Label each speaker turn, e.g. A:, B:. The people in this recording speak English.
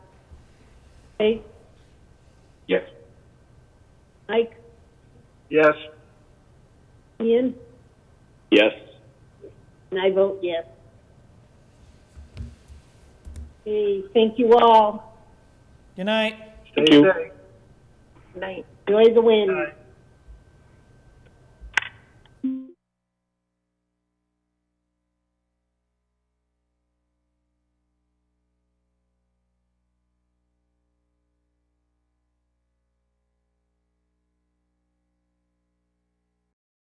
A: Hey,
B: Yes.
A: Mike,
B: Yes.
A: Ian,
B: Yes.
A: and I vote yes. Hey, thank you all.
C: Good night.
B: Thank you.
A: Night. Enjoy the wind.
B: Aye.